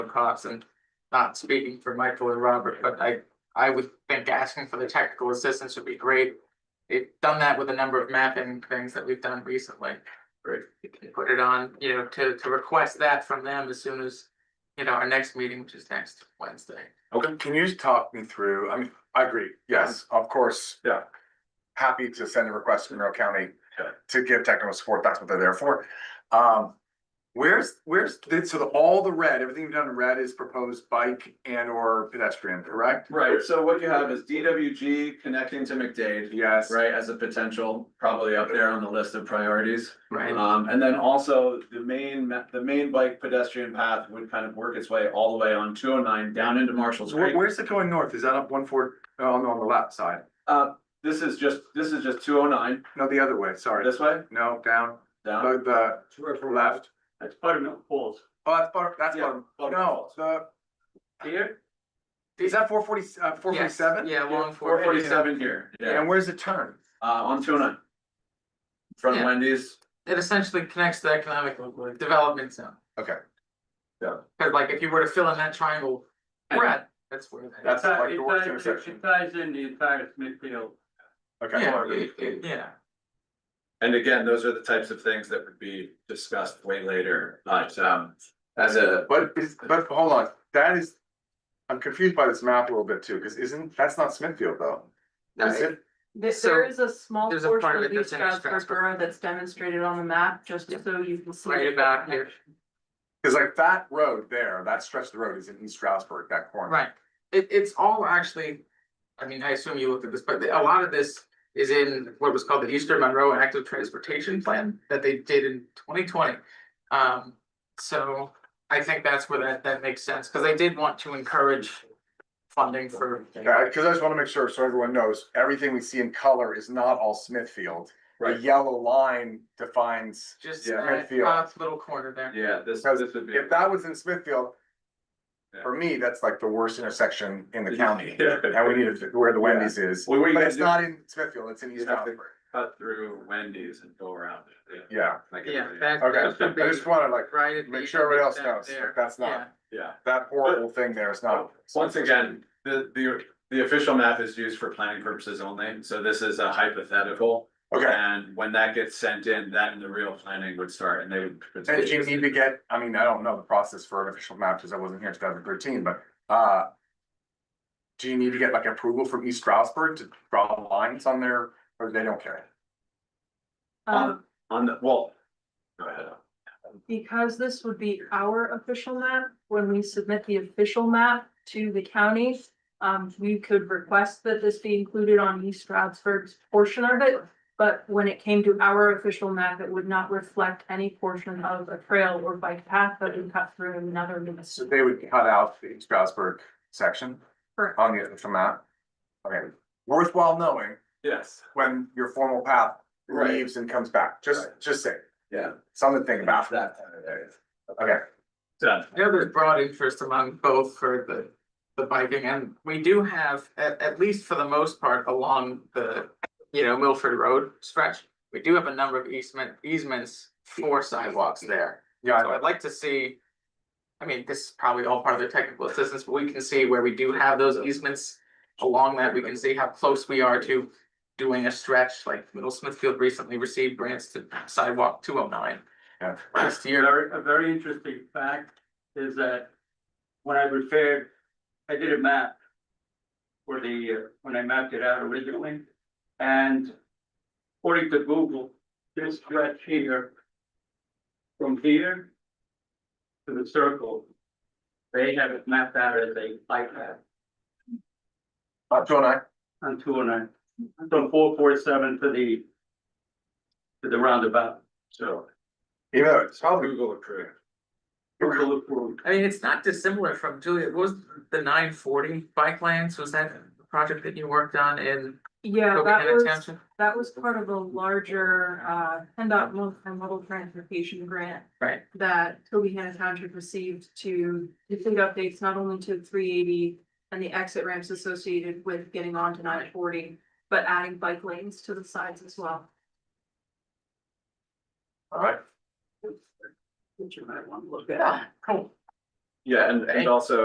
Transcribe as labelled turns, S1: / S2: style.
S1: Cox and not speaking for Michael or Robert, but I, I would think asking for the technical assistance would be great. They've done that with a number of mapping things that we've done recently.
S2: Great.
S1: You can Put it on, you know, to, to request that from them as soon as, you know, our next meeting, which is next Wednesday.
S2: Okay,
S3: Can you just talk me through, I mean, I agree, yes, of course.
S2: Yeah.
S3: Happy to send a request to Monroe County
S2: Yeah.
S3: to give technical support, that's what they're there for. Um, where's, where's, so the, all the red, everything you've done in red is proposed bike and or pedestrian, correct?
S2: right, so what you have is DWG connecting to McDade,
S3: Yes.
S2: right, as a potential, probably up there on the list of priorities.
S1: Right.
S3: Uh,
S2: Um, and then also the main, ma- the main bike pedestrian path would kind of work its way all the way on two oh nine down into Marshall's
S3: So where-
S2: Creek.
S3: where's it going north? Is that up one four, oh, no, on the left side?
S2: Uh, this is just, this is just two oh nine,
S3: No, the other way, sorry.
S2: this way,
S3: No, down,
S2: down.
S3: the, the left.
S2: That's Buttermilk Falls.
S3: Oh, that's, Butter- that's,
S2: Yeah,
S3: Butter-
S2: Buttermilk
S3: no,
S2: Falls.
S3: the,
S2: Here,
S3: is that four forty, uh, four forty
S1: Yes,
S3: seven?
S1: Yeah, long
S2: four
S1: four
S2: forty
S1: forty seven.
S2: seven here, yeah,
S3: And where's the turn?
S2: uh, on two oh nine. Front of
S1: Yeah.
S2: Wendy's,
S1: It essentially connects to economic development zone.
S3: Okay.
S2: Yeah.
S1: Cause like if you were to fill in that triangle, red, that's where. that-
S3: That's
S4: It
S3: like the worst
S4: ties- it-
S3: intersection.
S4: It ties in the entire Smithfield.
S3: Okay.
S1: Yeah, it- it- yeah.
S2: and again, those are the types of things that would be discussed way later, but, um, as a.
S3: But is, but hold on, that is, I'm confused by this map a little bit too, because isn't, that's not Smithfield though. Is it?
S5: There,
S1: So,
S5: there is a small
S1: there's a
S5: portion
S1: part of
S5: of
S1: it
S5: East
S1: that's in East
S5: Stroudsburg
S1: Stroudsburg.
S5: Borough that's demonstrated on the map, just
S1: Yeah.
S5: so you can see.
S1: Right
S5: the
S1: about here.
S5: connection.
S3: Because like that road there, that stretch of the road is in East Stroudsburg, that corner.
S1: Right, it, it's all actually, I mean, I assume you looked at this, but a lot of this is in what was called the Eastern Monroe Active Transportation Plan that they did in twenty twenty. Um, so I think that's where that, that makes sense, because they did want to encourage funding for.
S3: because I just want to make sure, so everyone knows, everything we see in color is not all Smithfield. The
S2: Right,
S3: yellow line defines,
S1: Just
S2: Yeah,
S3: I
S1: that
S3: feel-
S1: top little corner there.
S2: yeah, this,
S3: Because
S2: this would be.
S3: if that was in Smithfield, for me, that's like the worst intersection in the county.
S2: Yeah.
S3: And we need to, where the Wendy's is,
S2: Well, what you
S3: but
S2: gotta
S3: it's
S2: do-
S3: not in Smithfield, it's in East
S2: You have to-
S3: Stroudsburg.
S2: cut through Wendy's and go around it.
S3: Yeah,
S2: Like
S1: Yeah,
S2: everybody else.
S1: that, that
S3: okay,
S1: should be
S3: I just wanna like,
S1: right. at the
S3: make sure everybody else
S1: end of
S3: knows,
S1: there.
S3: like, that's
S1: Yeah,
S3: not,
S2: Yeah.
S3: that horrible thing there is not.
S2: Once again, the, the, the official map is used for planning purposes only, so this is a hypothetical.
S3: Okay,
S2: And when that gets sent in, that and the real planning would start and they would.
S3: and do you need to get, I mean, I don't know the process for an official map, cause I wasn't here in two thousand thirteen, but, uh. Do you need to get like approval from East Stroudsburg to draw lines on there, or they don't care?
S5: Um,
S2: On, on the, well. Go ahead.
S5: because this would be our official map, when we submit the official map to the county, um, we could request that this be included on East Stroudsburg's portion of it. But when it came to our official map, it would not reflect any portion of a trail or bike path that would cut through another
S3: So
S5: municipal.
S3: they would cut out the East Stroudsburg section
S5: Correct.
S3: on the official map. Okay, worthwhile knowing
S2: Yes,
S3: when your formal path
S2: Right.
S3: leaves and comes back, just, just say,
S2: yeah.
S3: something to think about.
S2: That kind of area.
S3: Okay,
S2: Done.
S1: I know there's broad interest among both for the, the biking and we do have, at, at least for the most part, along the, you know, Milford Road stretch. We do have a number of easement, easements for sidewalks there.
S3: yeah, I
S1: So
S3: know.
S1: I'd like to see, I mean, this is probably all part of the technical assistance, but we can see where we do have those easements. Along that, we can see how close we are to doing a stretch, like Middle Smithfield recently received grants to sidewalk two oh nine
S3: yeah,
S1: last year.
S4: Very, a very interesting fact is that when I prepared, I did a map for the, uh, when I mapped it out originally, and according to Google, this stretch here, from here to the circle, they have it mapped out as a bike path
S3: uh, Joe and I,
S4: on two oh nine, from four four seven to the to the roundabout,
S2: So.
S3: even though it's probably
S2: Google approved.
S4: Google approved.
S1: I mean, it's not dissimilar from Julia, what was the nine forty bike lanes, was that the project that you worked on in
S5: Yeah, that
S1: Copacetic
S5: was.
S1: Township?
S5: That was part of a larger, uh, PennDOT multimodal transportation grant
S1: Right,
S5: that Toby Hannah Township received to complete updates not only to three eighty and the exit ramps associated with getting onto nine forty, but adding bike lanes to the sides as well.
S3: All right,
S4: Which you might want to look at.
S1: cool.
S2: Yeah, and and
S1: Thank-
S2: also